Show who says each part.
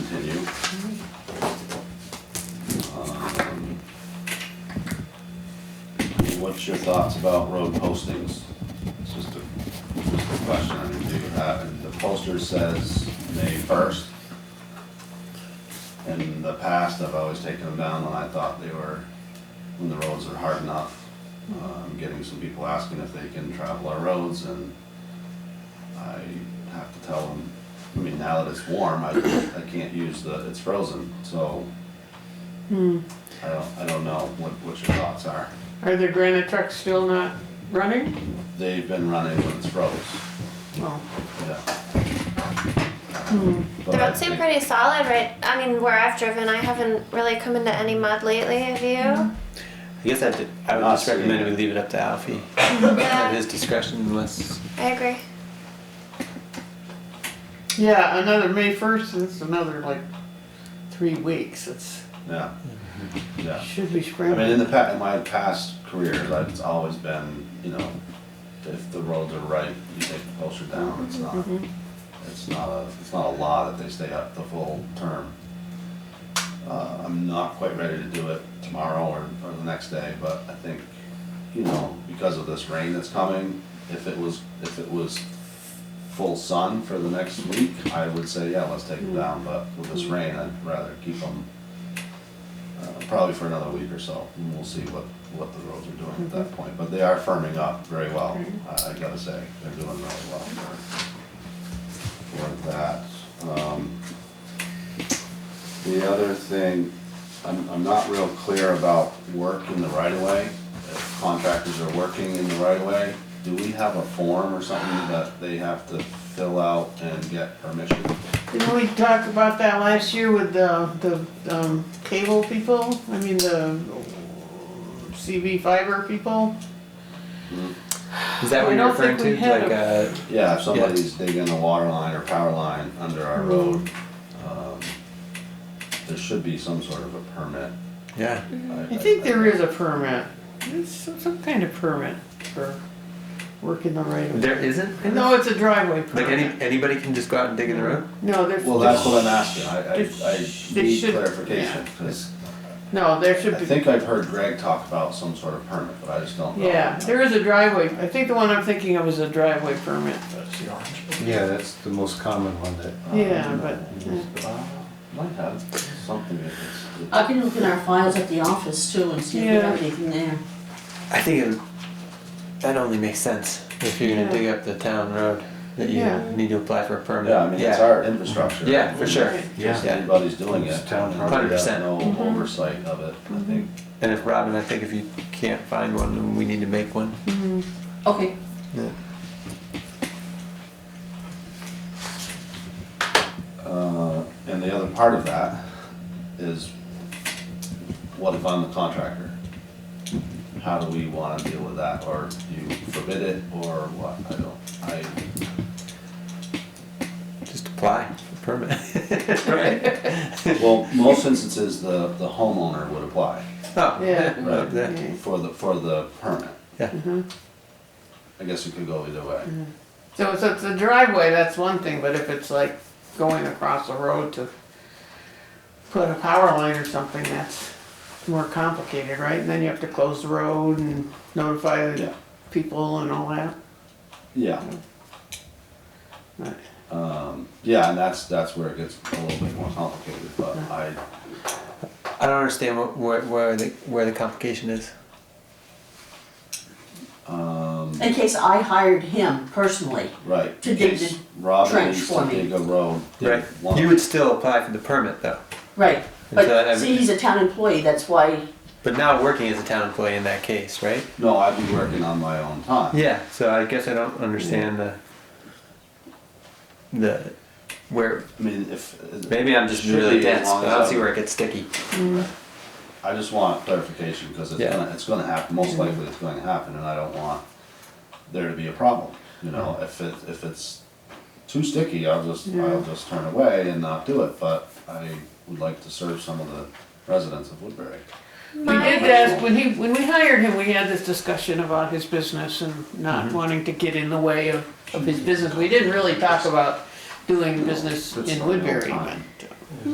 Speaker 1: Um, what's your thoughts about road postings? It's just a, just a question I need to have, and the poster says May first. In the past, I've always taken them down when I thought they were, when the roads are hard enough. Um, getting some people asking if they can travel our roads and I have to tell them, I mean, now that it's warm, I, I can't use the, it's frozen, so
Speaker 2: Hmm,
Speaker 1: I don't, I don't know what, what your thoughts are.
Speaker 2: are the granite trucks still not running?
Speaker 1: They've been running when it's froze,
Speaker 2: Well,
Speaker 1: yeah.
Speaker 2: hmm,
Speaker 1: But
Speaker 3: The
Speaker 1: I
Speaker 3: roads seem
Speaker 1: think-
Speaker 3: pretty solid, right? I mean, where I've driven, I haven't really come into any mud lately, have you?
Speaker 4: I guess I'd, I would just recommend we leave it up to Alfie at
Speaker 3: Yeah,
Speaker 4: his discretion unless.
Speaker 3: I agree.
Speaker 2: yeah, another May first, it's another like three weeks, it's,
Speaker 1: Yeah, yeah.
Speaker 2: should be
Speaker 1: I
Speaker 2: spring.
Speaker 1: mean, in the pa, in my past career, like, it's always been, you know, if the roads are right, you take the poster down, it's not,
Speaker 2: Mhm.
Speaker 1: it's not a, it's not a law that they stay up the full term. Uh, I'm not quite ready to do it tomorrow or, or the next day, but I think, you know, because of this rain that's coming, if it was, if it was full sun for the next week, I would say, yeah, let's take them down, but with this rain, I'd rather keep them uh, probably for another week or so, and we'll see what, what the roads are doing at that point, but they are firming up very well, I, I gotta say, they're doing really well for, for that. Um, The other thing, I'm, I'm not real clear about work in the right of way, if contractors are working in the right of way, do we have a form or something that they have to fill out and get permission?
Speaker 2: Didn't we talk about that last year with the, the, um, cable people, I mean, the CB fiber people?
Speaker 4: Is that what
Speaker 2: I
Speaker 4: you're
Speaker 2: don't
Speaker 4: referring
Speaker 2: think
Speaker 4: to?
Speaker 2: we had
Speaker 4: Like uh
Speaker 1: Yeah, if somebody's digging a water line or power line under
Speaker 2: Mm-hmm.
Speaker 1: our road, um, there should be some sort of a permit.
Speaker 4: yeah.
Speaker 2: Mm-hmm. I think there is a permit, there's some, some kind of permit for working the right of way.
Speaker 4: There isn't.
Speaker 2: No, it's a driveway
Speaker 4: Like any
Speaker 2: permit,
Speaker 4: anybody can just go out and dig in the road.
Speaker 2: no, there's.
Speaker 1: Well, that's what I'm asking, I, I, I
Speaker 2: They
Speaker 1: need
Speaker 2: should-
Speaker 1: clarification,
Speaker 2: yeah.
Speaker 1: 'cause
Speaker 2: No, there should
Speaker 1: I
Speaker 2: be.
Speaker 1: think I've heard Greg talk about some sort of permit, but I just don't know.
Speaker 2: Yeah, there is a driveway, I think the one I'm thinking of is a driveway permit.
Speaker 5: Yeah, that's the most common one that.
Speaker 1: Uh,
Speaker 2: Yeah, but, uh,
Speaker 1: uh, Might have something if it's.
Speaker 6: I can look in our files at the office too and see if we have anything there.
Speaker 4: I think it would, that only makes sense if you're gonna
Speaker 2: Yeah.
Speaker 4: dig up the town road that you
Speaker 2: Yeah.
Speaker 4: need to apply for a permit.
Speaker 1: Yeah, I mean, it's our infrastructure.
Speaker 4: Yeah, for sure.
Speaker 2: Right.
Speaker 1: Just
Speaker 4: Yeah.
Speaker 1: anybody's doing it.
Speaker 5: It's town
Speaker 1: and we
Speaker 4: property.
Speaker 1: have No
Speaker 2: Mhm.
Speaker 1: oversight of it,
Speaker 2: Mm-hmm.
Speaker 1: I think.
Speaker 4: And if Robin, I think if you can't find one, then we need to make one.
Speaker 6: Okay,
Speaker 1: Uh, And the other part of that is, what if I'm the contractor? How do we wanna deal with that, or do you forbid it, or what, I don't, I,
Speaker 4: Just apply for a permit. right.
Speaker 1: well, most instances, the, the homeowner would apply
Speaker 4: Oh
Speaker 2: Yeah.
Speaker 4: no,
Speaker 1: Right.
Speaker 4: yeah.
Speaker 2: okay.
Speaker 1: for the, for the permit. Mm-hmm.
Speaker 4: Yeah.
Speaker 2: Mhm.
Speaker 1: I guess it could go either way,
Speaker 2: So, so it's a driveway, that's one thing, but if it's like going across the road to put a power line or something, that's more complicated, right? And then you have to close the road and notify
Speaker 1: yeah,
Speaker 2: the people and all that.
Speaker 1: yeah.
Speaker 2: Right.
Speaker 1: Um, yeah, and that's, that's where it gets a little bit more complicated, but I,
Speaker 4: I don't understand what, where, where the where the complication is.
Speaker 1: um.
Speaker 6: in case I hired him personally,
Speaker 1: Right.
Speaker 6: To dig
Speaker 1: because
Speaker 6: the
Speaker 1: Robin
Speaker 6: trench
Speaker 1: needs
Speaker 6: for
Speaker 1: to
Speaker 6: me.
Speaker 1: dig a road. dig
Speaker 4: Right.
Speaker 1: one.
Speaker 4: You would still apply for the permit though.
Speaker 6: right,
Speaker 4: Until I
Speaker 6: but
Speaker 4: have-
Speaker 6: see, he's a town employee, that's why,
Speaker 4: But now working as a town employee in that case, right?
Speaker 1: No, I'd be working on my own time.
Speaker 4: Yeah. So I guess I don't understand the the where
Speaker 1: I mean, if.
Speaker 4: maybe I'm just
Speaker 1: Should
Speaker 4: really
Speaker 1: be as
Speaker 4: dense,
Speaker 1: long
Speaker 4: but I
Speaker 1: as
Speaker 4: don't
Speaker 1: I'm-
Speaker 4: see where it gets sticky.
Speaker 1: I just want clarification, because it's
Speaker 4: Yeah.
Speaker 1: gonna, it's gonna happen, most likely it's gonna happen, and I don't want there to be a problem. You know, if it, if it's too sticky, I'll just, I'll just turn away and not do it, but I would like to serve some of the residents of Woodbury.
Speaker 2: We
Speaker 3: My,
Speaker 2: did that, when he, when we hired him, we had this discussion about his business and
Speaker 1: Mm-hmm.
Speaker 2: not wanting to get in the way of, of his business. We didn't really talk about doing business
Speaker 1: It's
Speaker 2: in
Speaker 1: not my own
Speaker 2: Woodbury, but
Speaker 1: time.